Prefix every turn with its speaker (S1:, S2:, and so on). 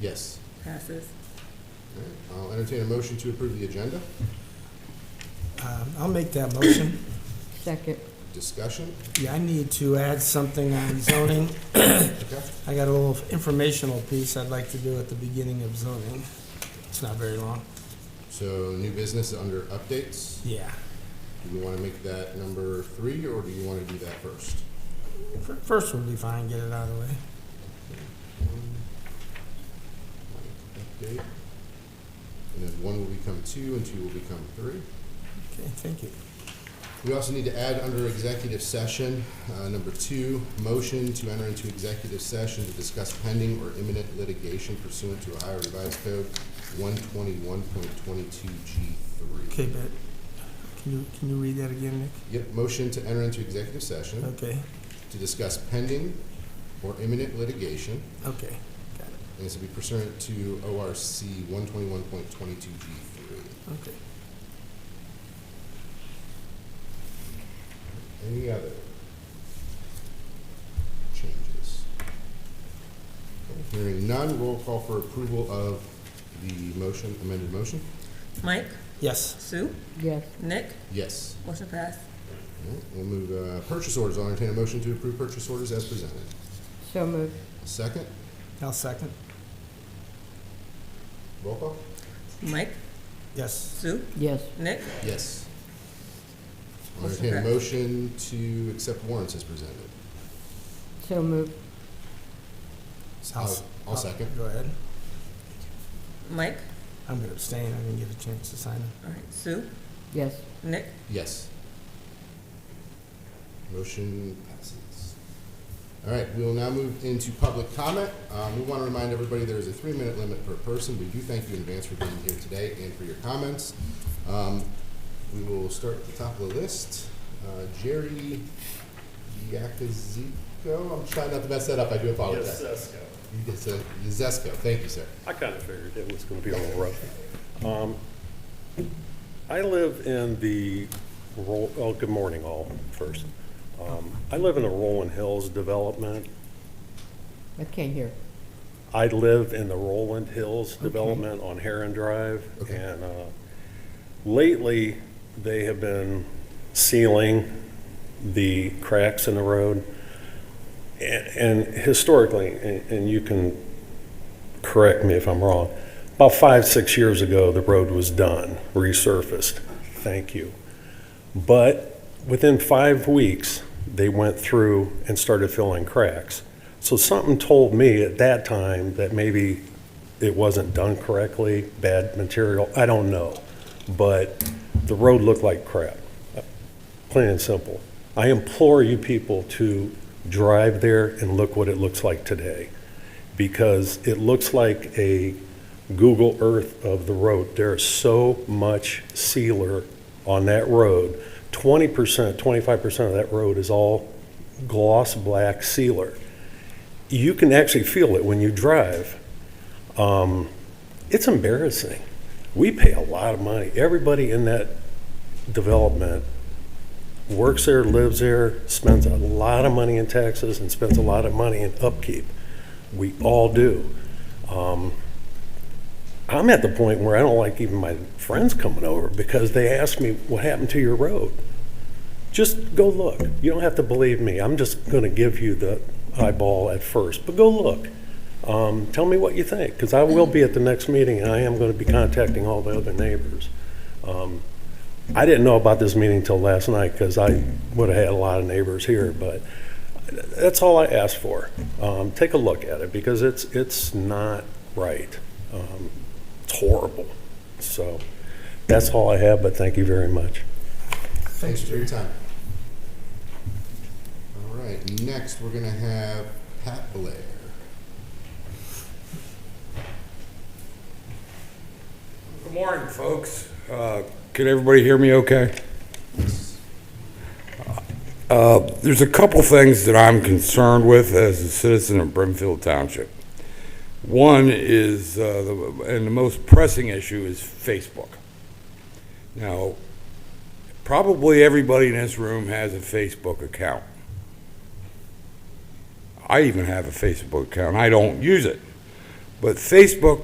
S1: Yes.
S2: Passes.
S1: All right, I'll entertain a motion to approve the agenda.
S3: Um, I'll make that motion.
S4: Second.
S1: Discussion,
S3: Yeah, I need to add something on zoning.
S1: okay?
S3: I got a little informational piece I'd like to do at the beginning of zoning. It's not very long.
S1: So new business under updates.
S3: Yeah.
S1: Do you want to make that number three, or do you want to do that first?
S3: Fir- First would be fine, get it out of the way.
S1: Update. And then one will become two, and two will become three.
S3: Okay, thank you.
S1: We also need to add under executive session, uh, number two, motion to enter into executive session to discuss pending or imminent litigation pursuant to Ohio Revised Code one twenty-one point twenty-two G three.
S3: Okay, but can you, can you read that again, Nick?
S1: Yep, motion to enter into executive session
S3: Okay,
S1: to discuss pending or imminent litigation,
S3: okay.
S1: and this will be pursuant to ORC one twenty-one point twenty-two G three. Any other changes? Okay, Hearing none, roll call for approval of the motion, amended motion?
S2: Mike,
S3: Yes,
S2: Sue,
S4: Yes.
S2: Nick,
S1: Yes.
S2: motion pass.
S1: All right, We'll move, uh, purchase orders. I'll entertain a motion to approve purchase orders as presented.
S4: So moved.
S1: Second,
S3: I'll second.
S1: roll call?
S2: Mike,
S3: Yes,
S2: Sue,
S4: Yes.
S2: Nick,
S1: Yes. I'll
S2: Motion
S1: entertain a
S2: passed.
S1: motion to accept warrants as presented.
S4: So moved.
S3: I'll
S1: I'll,
S3: s-
S1: I'll second.
S3: go ahead.
S2: Mike,
S3: I'm gonna abstain, I didn't get a chance to sign it.
S2: all right, Sue,
S4: Yes.
S2: Nick,
S1: Yes. Motion passes. All right, we will now move into public comment. Um, We want to remind everybody there is a three-minute limit per person. We do thank you in advance for being here today and for your comments. Um, We will start at the top of the list. Uh, Jerry Yakuzico, I'm trying not to mess that up, I do
S5: Yes,
S1: apologize.
S5: Cesco.
S1: Yazesko, thank you, sir.
S5: I kind of figured it was going to be a little rough. Um, I live in the, Ro- oh, good morning all, first. Um, I live in the Rolling Hills development.
S4: I can't hear.
S5: I live in the Roland Hills development on Heron Drive,
S1: Okay.
S5: and uh, lately, they have been sealing the cracks in the road. A- And historically, and and you can correct me if I'm wrong, about five, six years ago, the road was done, resurfaced. Thank you. But within five weeks, they went through and started filling cracks. So something told me at that time that maybe it wasn't done correctly, bad material, I don't know. But the road looked like crap, plain and simple. I implore you people to drive there and look what it looks like today. Because it looks like a Google Earth of the road. There is so much sealer on that road. Twenty percent, twenty-five percent of that road is all gloss black sealer you can actually feel it when you drive. Um, it's embarrassing. We pay a lot of money. Everybody in that development works there, lives there, spends a lot of money in taxes, and spends a lot of money in upkeep. We all do. Um, I'm at the point where I don't like even my friends coming over because they ask me, What happened to your road? just go look. You don't have to believe me. I'm just going to give you the eyeball at first, but go look. Um, tell me what you think, because I will be at the next meeting, and I am going to be contacting all the other neighbors. Um, I didn't know about this meeting till last night, because I would have had a lot of neighbors here, but that's all I asked for. Um, take a look at it, because it's, it's not right. Um, it's horrible. So that's all I have, but thank you very much.
S1: Thanks for your time. All right, next, we're gonna have Pat Blair.
S6: Good morning, folks. Uh, Can everybody hear me okay? Uh, There's a couple things that I'm concerned with as a citizen of Brimfield Township. One is, uh, the- and the most pressing issue is Facebook. Now, probably everybody in this room has a Facebook account. I even have a Facebook account. I don't use it. But Facebook